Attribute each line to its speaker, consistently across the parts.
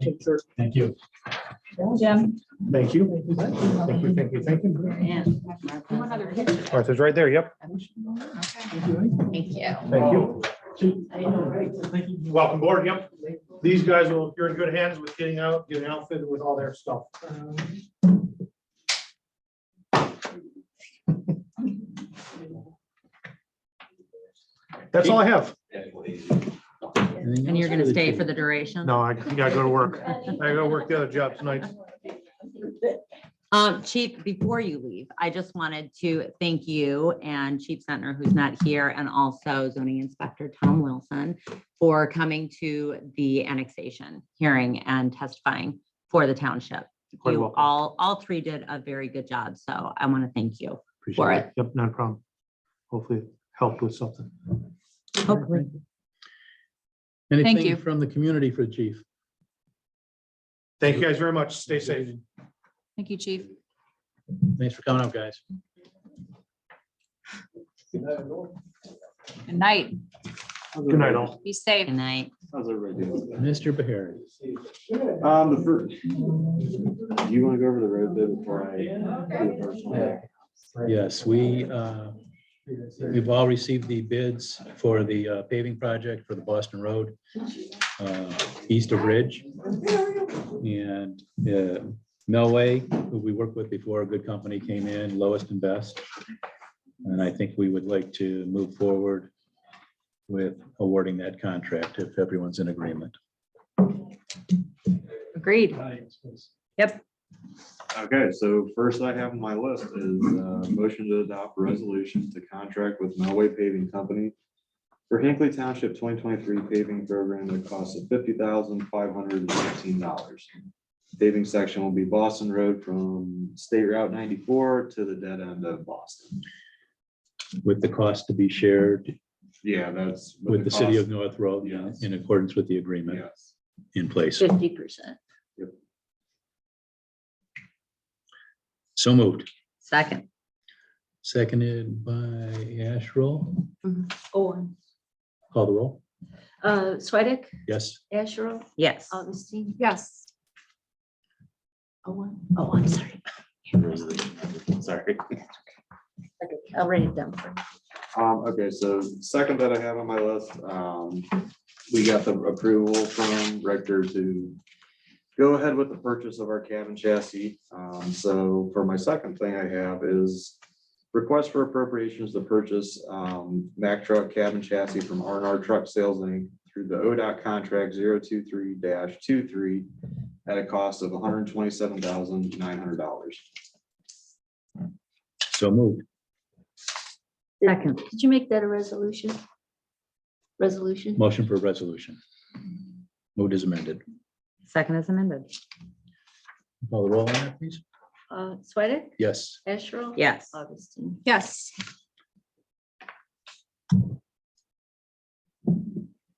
Speaker 1: picture.
Speaker 2: Thank you.
Speaker 3: Jim.
Speaker 1: Thank you. Thank you, thank you, thank you.
Speaker 3: One other picture.
Speaker 4: Martha's right there, yep.
Speaker 3: Thank you.
Speaker 4: Thank you.
Speaker 1: Welcome board, yep. These guys will, you're in good hands with getting out, getting outfitted with all their stuff.
Speaker 4: That's all I have.
Speaker 5: And you're gonna stay for the duration?
Speaker 4: No, I gotta go to work. I gotta work the other job tonight.
Speaker 5: Um, Chief, before you leave, I just wanted to thank you and Chief Sentner, who's not here, and also zoning inspector Tom Wilson for coming to the annexation hearing and testifying for the township.
Speaker 4: Quite
Speaker 5: You
Speaker 4: welcome.
Speaker 5: all, all three did a very good job, so I want to thank you.
Speaker 4: Appreciate it. Yep, not a problem. Hopefully it helped with something.
Speaker 5: Hopefully.
Speaker 2: Anything
Speaker 3: you.
Speaker 2: from the community for the chief?
Speaker 1: Thank you guys very much. Stay safe.
Speaker 3: Thank you, chief.
Speaker 2: Thanks for coming up, guys.
Speaker 3: Good night.
Speaker 4: Good night, all.
Speaker 3: Be safe.
Speaker 5: Good night.
Speaker 6: How's everybody doing?
Speaker 2: Mr. Bahari.
Speaker 6: Um, the first. Do you want to go over the road bit before I? do the first one?
Speaker 2: Yes, we, uh, we've all received the bids for the uh, paving project for the Boston Road uh, east of Ridge. And uh, Melway, who we worked with before, a good company, came in lowest and best. And I think we would like to move forward with awarding that contract if everyone's in agreement.
Speaker 3: Agreed.
Speaker 6: Okay, so first I have on my list is uh motion to adopt resolution to contract with Melway Paving Company for Hinckley Township twenty twenty-three paving program at a cost of fifty thousand five hundred and fifteen dollars. Paving section will be Boston Road from State Route ninety-four to the dead end of Boston.
Speaker 2: With the cost to be shared
Speaker 6: Yeah, that's. what
Speaker 2: with the city
Speaker 6: cost-
Speaker 2: of North Road uh,
Speaker 6: Yes.
Speaker 2: in accordance with the agreement
Speaker 6: Yes.
Speaker 2: in place.
Speaker 5: Fifty percent.
Speaker 2: So moved.
Speaker 5: Second.
Speaker 2: Seconded by Asherall.
Speaker 5: Oh,
Speaker 7: Owen,
Speaker 2: Call the roll.
Speaker 7: uh, Swedick,
Speaker 2: Yes.
Speaker 7: Asherle,
Speaker 5: Yes.
Speaker 7: Augustine,
Speaker 3: Yes.
Speaker 7: Owen, oh, I'm sorry,
Speaker 6: Sorry.
Speaker 7: Okay, I'll write it down for you.
Speaker 6: Um, okay, so second that I have on my list, um, we got the approval from Rector to go ahead with the purchase of our cabin chassis. Um, so for my second thing I have is request for appropriations to purchase, um, Mack truck cabin chassis from R and R Truck Sales Inc. through the ODOT contract 023-23 at a cost of hundred and twenty-seven thousand nine hundred dollars.
Speaker 2: So moved.
Speaker 5: Second.
Speaker 7: Did you make that a resolution? Resolution?
Speaker 2: Motion for resolution. Moved as amended.
Speaker 5: Second is amended.
Speaker 2: Call the roll on that, please.
Speaker 7: Uh, Swedick,
Speaker 2: Yes.
Speaker 7: Asherle?
Speaker 5: Yes.
Speaker 7: Augustine.
Speaker 3: Yes.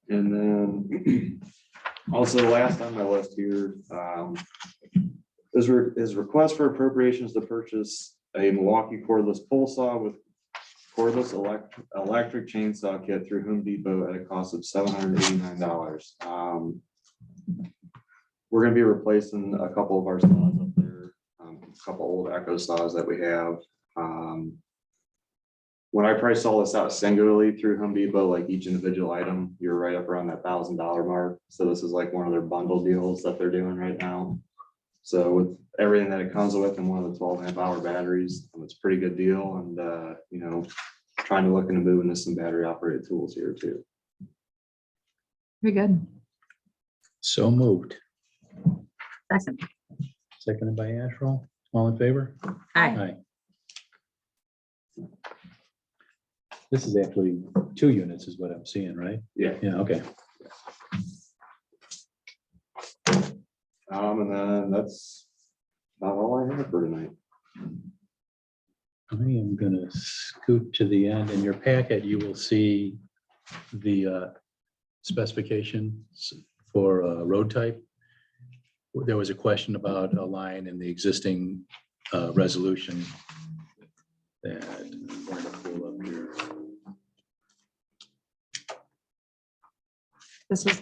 Speaker 6: And then also last on my list here, um, is, re- is request for appropriations to purchase a Milwaukee cordless pole saw with cordless elect, electric chainsaw kit through Home Depot at a cost of seven hundred eighty-nine dollars. Um, We're gonna be replacing a couple of our saws up there, um, a couple old Echo saws that we have. Um, when I priced all this out singularly through Home Depot, like each individual item, you're right up around that thousand dollar mark. So this is like one of their bundle deals that they're doing right now. So with everything that it comes with and one of the 12 amp hour batteries, it's a pretty good deal and, uh, you know, trying to look into moving to some battery operated tools here too.
Speaker 3: Very good.
Speaker 2: So moved.
Speaker 5: Second.
Speaker 2: Seconded by Asherall. All in favor?
Speaker 5: Aye.
Speaker 2: This is actually two units is what I'm seeing, right?
Speaker 6: Yeah.
Speaker 2: Yeah, okay.
Speaker 6: Um, and then that's not all I have for tonight.
Speaker 2: I am gonna scoot to the end. In your packet, you will see the uh, specifications for uh, road type. There was a question about a line in the existing uh, resolution that uh, I'm going to pull up here.
Speaker 3: This was